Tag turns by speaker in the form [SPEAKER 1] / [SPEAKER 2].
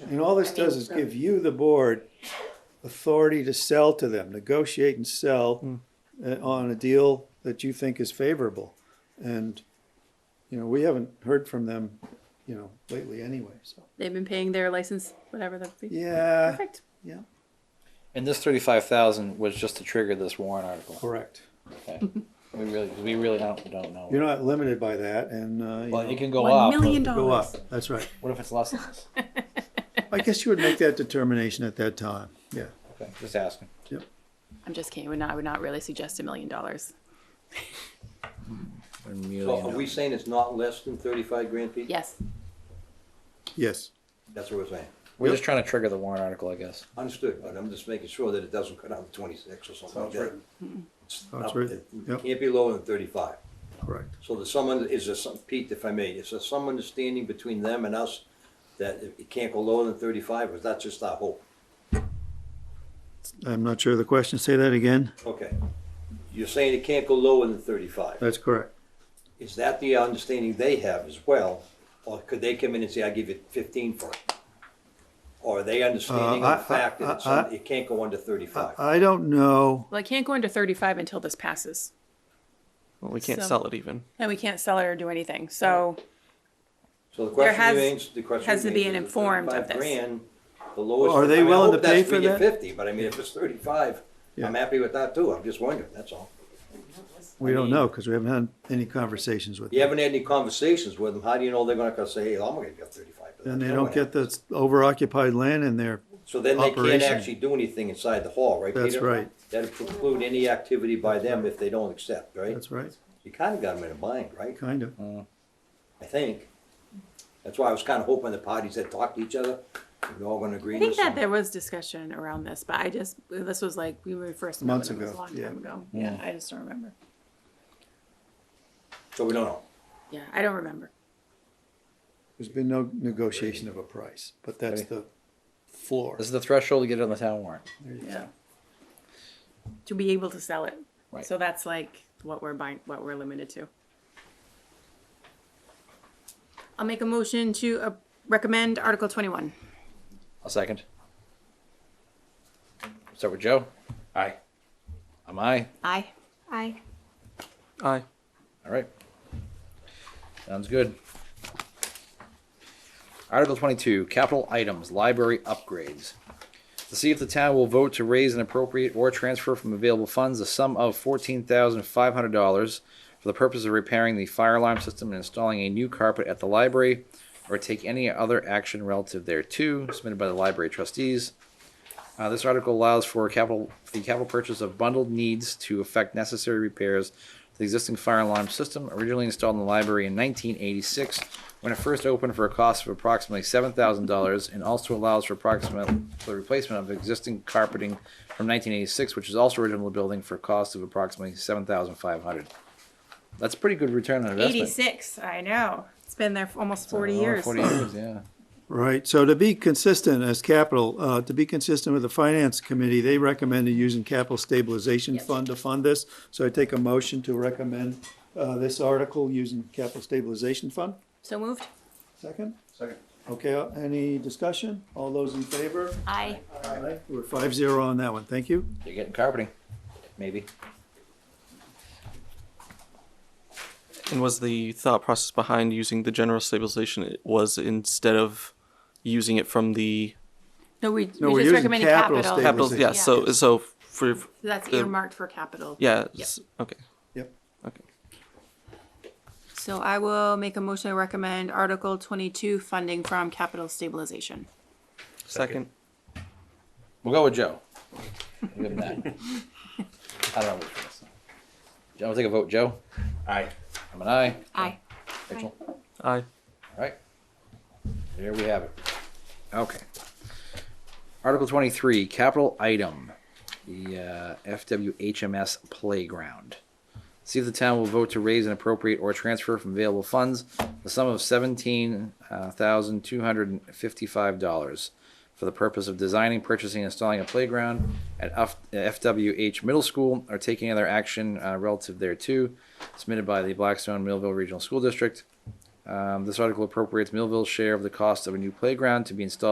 [SPEAKER 1] And all this
[SPEAKER 2] I mean,
[SPEAKER 1] does is
[SPEAKER 2] so-
[SPEAKER 1] give you, the board, authority to sell to them, negotiate and sell uh, on a deal that you think is favorable. And, you know, we haven't heard from them, you know, lately anyway, so.
[SPEAKER 2] They've been paying their license, whatever that be.
[SPEAKER 1] Yeah,
[SPEAKER 2] Perfect.
[SPEAKER 1] yeah.
[SPEAKER 3] And this thirty-five thousand was just to trigger this warrant article.
[SPEAKER 1] Correct.
[SPEAKER 3] Okay. We really, we really don't, don't know.
[SPEAKER 1] You're not limited by that and, uh, you
[SPEAKER 3] Well,
[SPEAKER 1] know,
[SPEAKER 3] it can go
[SPEAKER 2] One
[SPEAKER 3] up.
[SPEAKER 2] million
[SPEAKER 3] but
[SPEAKER 1] go
[SPEAKER 2] dollars.
[SPEAKER 1] up, that's right.
[SPEAKER 3] What if it's less than this?
[SPEAKER 1] I guess you would make that determination at that time, yeah.
[SPEAKER 3] Okay, just asking.
[SPEAKER 2] I'm just kidding. I would not, I would not really suggest a million dollars.
[SPEAKER 3] One million
[SPEAKER 4] So are we
[SPEAKER 3] dollars.
[SPEAKER 4] saying it's not less than thirty-five grand, Pete?
[SPEAKER 2] Yes.
[SPEAKER 1] Yes,
[SPEAKER 4] That's what we're saying.
[SPEAKER 3] We're
[SPEAKER 1] Yep.
[SPEAKER 3] just trying to trigger the warrant article, I guess.
[SPEAKER 4] Understood, but I'm just making sure that it doesn't cut out to twenty-six or something like that. It's
[SPEAKER 1] Sounds
[SPEAKER 4] up-
[SPEAKER 1] written, yep.
[SPEAKER 4] It Can't be lower than thirty-five.
[SPEAKER 1] correct.
[SPEAKER 4] So there's someone, is there some, Pete, if I may, is there some understanding between them and us that it it can't go lower than thirty-five, or is that just our hope?
[SPEAKER 1] I'm not sure of the question, say that again?
[SPEAKER 4] Okay. You're saying it can't go lower than thirty-five.
[SPEAKER 1] That's correct.
[SPEAKER 4] Is that the understanding they have as well? Or could they come in and say, I give you fifteen for it? Or are they understanding
[SPEAKER 1] Uh, I-
[SPEAKER 4] the fact that it's,
[SPEAKER 1] I- Uh, I-
[SPEAKER 4] it can't go under
[SPEAKER 1] I,
[SPEAKER 4] thirty-five?
[SPEAKER 1] I don't know.
[SPEAKER 2] Well, I can't go into 35 until this passes,
[SPEAKER 5] Well, we can't
[SPEAKER 2] So-
[SPEAKER 5] sell it even.
[SPEAKER 2] and we can't sell it or do anything. So
[SPEAKER 4] So the
[SPEAKER 2] there
[SPEAKER 4] question
[SPEAKER 2] has-
[SPEAKER 4] remains, the question
[SPEAKER 2] has to be
[SPEAKER 4] remains,
[SPEAKER 2] an
[SPEAKER 4] is it
[SPEAKER 2] informed of
[SPEAKER 4] 35
[SPEAKER 2] this.
[SPEAKER 4] grand, The lowest.
[SPEAKER 1] Are they
[SPEAKER 4] I mean, I
[SPEAKER 1] willing
[SPEAKER 4] hope
[SPEAKER 1] to
[SPEAKER 4] that's
[SPEAKER 1] pay for
[SPEAKER 4] we
[SPEAKER 1] that?
[SPEAKER 4] get Fifty, but I mean, if it's thirty-five, I'm
[SPEAKER 1] Yeah.
[SPEAKER 4] happy with that too, I'm just wondering, that's all.
[SPEAKER 1] We don't know, because we haven't had any conversations with
[SPEAKER 4] You
[SPEAKER 1] them.
[SPEAKER 4] haven't had any conversations with them, how do you know they're gonna come say, hey, I'm gonna get thirty-five? for that?"
[SPEAKER 1] And they
[SPEAKER 4] No
[SPEAKER 1] don't
[SPEAKER 4] one
[SPEAKER 1] get
[SPEAKER 4] has.
[SPEAKER 1] the overoccupied land in there.
[SPEAKER 4] So then they can't
[SPEAKER 1] operation.
[SPEAKER 4] actually do anything inside the hall, right, Peter?
[SPEAKER 1] That's right.
[SPEAKER 4] That'd preclude any activity by them if they don't accept, right?
[SPEAKER 1] That's right,
[SPEAKER 4] You kinda got them in a bind, right?
[SPEAKER 1] kind of.
[SPEAKER 4] I think. That's why I was kinda hoping the parties that talk to each other, we're all gonna agree
[SPEAKER 2] I
[SPEAKER 4] on
[SPEAKER 2] think
[SPEAKER 4] this.
[SPEAKER 2] that there was discussion around this, but I just, this was like, we were first. met
[SPEAKER 1] Months
[SPEAKER 2] when it was
[SPEAKER 1] ago,
[SPEAKER 2] A long
[SPEAKER 1] yeah.
[SPEAKER 2] time ago. Yeah. I just don't remember.
[SPEAKER 4] So we don't know.
[SPEAKER 2] Yeah. I don't remember.
[SPEAKER 1] There's been no negotiation of a price, but that's the floor.
[SPEAKER 3] This is the threshold to get it on the town warrant.
[SPEAKER 2] Yeah. To be able to sell it.
[SPEAKER 3] Right.
[SPEAKER 2] So that's like what we're buying, what we're limited to. I'll make a motion to uh, recommend Article twenty-one.
[SPEAKER 3] A second. Start with Joe. Aye. I'm aye.
[SPEAKER 2] Aye.
[SPEAKER 6] Aye.
[SPEAKER 5] Aye.
[SPEAKER 3] All right. Sounds good. Article twenty-two, capital items, library upgrades. To see if the town will vote to raise and appropriate or transfer from available funds the sum of fourteen thousand five hundred dollars for the purpose of repairing the fire alarm system and installing a new carpet at the library, or take any other action relative thereto submitted by the library trustees. Uh, this article allows for capital, the capital purchase of bundled needs to effect necessary repairs to the existing fire alarm system originally installed in the library in 1986 when it first opened for a cost of approximately $7,000 and also allows for approximate for the replacement of existing carpeting from 1986 which is also original to the building for a cost of approximately 7500 That's pretty good return on investment.
[SPEAKER 2] Eighty-six, I know. It's been there for almost forty
[SPEAKER 3] Oh,
[SPEAKER 2] years.
[SPEAKER 3] 40 years, yeah.
[SPEAKER 1] Right, so to be consistent as capital, uh, to be consistent with the finance committee, they recommended using capital stabilization fund to fund this. So I take a motion to recommend, uh, this article using capital stabilization fund.
[SPEAKER 2] So moved?
[SPEAKER 1] Second? Second. Okay, uh, any discussion? All those in favor?
[SPEAKER 2] Aye.
[SPEAKER 1] Aye. We're five zero on that one, thank you.
[SPEAKER 3] You're getting carpeting, maybe.
[SPEAKER 5] And was the thought process behind using the general stabilization it was instead of using it from the
[SPEAKER 2] No, we,
[SPEAKER 1] No,
[SPEAKER 2] we
[SPEAKER 1] we're
[SPEAKER 2] just
[SPEAKER 1] using
[SPEAKER 2] recommended
[SPEAKER 1] capital
[SPEAKER 2] capital.
[SPEAKER 1] stabilization.
[SPEAKER 5] capital? Yeah. So
[SPEAKER 2] Yeah.
[SPEAKER 5] so for
[SPEAKER 2] That's
[SPEAKER 5] the-
[SPEAKER 2] earmarked for capital.
[SPEAKER 5] yeah. s- Okay.
[SPEAKER 1] Yep.
[SPEAKER 5] Okay.
[SPEAKER 2] So I will make a motion to recommend Article twenty-two funding from capital stabilization.
[SPEAKER 5] Second.
[SPEAKER 3] We'll go with Joe. We'll give him that. I don't know which one it's not. Joe, we'll take a vote. Joe? Aye. I'm an aye.
[SPEAKER 2] Aye.
[SPEAKER 3] Rachel? All
[SPEAKER 5] Aye.
[SPEAKER 3] right. There we have it. Okay. Article twenty-three, capital item, the uh, FWHMS playground. See if the town will vote to raise and appropriate or transfer from available funds the sum of seventeen uh, thousand two hundred and fifty-five dollars for the purpose of designing, purchasing, and installing a playground at F- FWH Middle School or taking other action uh, relative thereto, submitted by the Blackstone Millville Regional School District. Um, this article appropriates Millville's share of the cost of a new playground to be installed.